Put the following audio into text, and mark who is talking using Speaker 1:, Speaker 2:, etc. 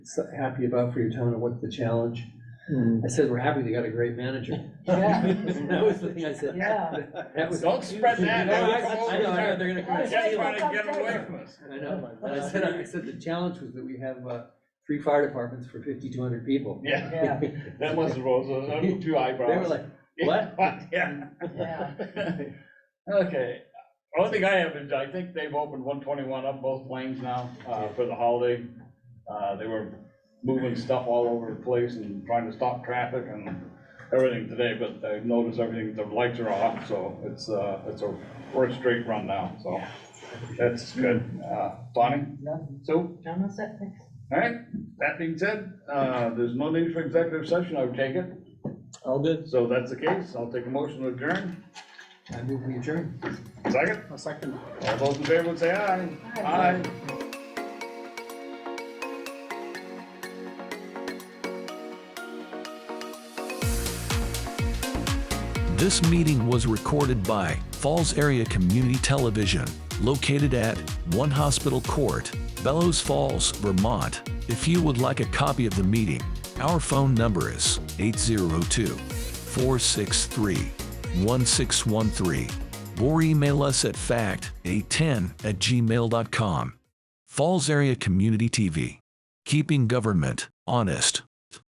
Speaker 1: so happy about for your town and what's the challenge? I said, we're happy they got a great manager.
Speaker 2: Yeah,
Speaker 1: That was the thing I said.
Speaker 2: yeah.
Speaker 1: That was-
Speaker 3: Don't spread that.
Speaker 1: No, I-
Speaker 3: They will come
Speaker 1: I know, I know,
Speaker 3: over
Speaker 1: they're gonna come.
Speaker 2: there.
Speaker 1: and
Speaker 3: Just
Speaker 2: That's
Speaker 1: steal
Speaker 3: trying
Speaker 1: it.
Speaker 3: to get away from us.
Speaker 1: I know, and I said, I said, the challenge was that we have, uh, three fire departments for fifty-two hundred people.
Speaker 3: Yeah,
Speaker 2: Yeah,
Speaker 3: that must have rose, those two eyebrows.
Speaker 1: They were like, what?
Speaker 3: Yeah.
Speaker 2: yeah.
Speaker 3: Okay, only thing I have is, I think they've opened one twenty-one up both lanes now, uh, for the holiday. Uh, they were moving stuff all over the place and trying to stop traffic and everything today, but I noticed everything, the lights are off, so it's, uh, it's a first straight run now, so. That's good. Uh, Bonnie?
Speaker 2: Nothing.
Speaker 3: Sue?
Speaker 2: John, that's it, thanks.
Speaker 3: All right, that being said, uh, there's no need for executive session, I would take it.
Speaker 4: All good.
Speaker 3: So if that's the case, I'll take a motion to adjourn.
Speaker 1: I move we adjourn.
Speaker 3: Second,
Speaker 4: A second.
Speaker 3: all those in favor would say aye.
Speaker 2: Aye.
Speaker 3: Aye.
Speaker 5: This meeting was recorded by Falls Area Community Television, located at One Hospital Court, Bellows Falls, Vermont. If you would like a copy of the meeting, our phone number is 802 463 1613 or email us at fact810 at gmail.com. Falls Area Community TV, keeping government honest.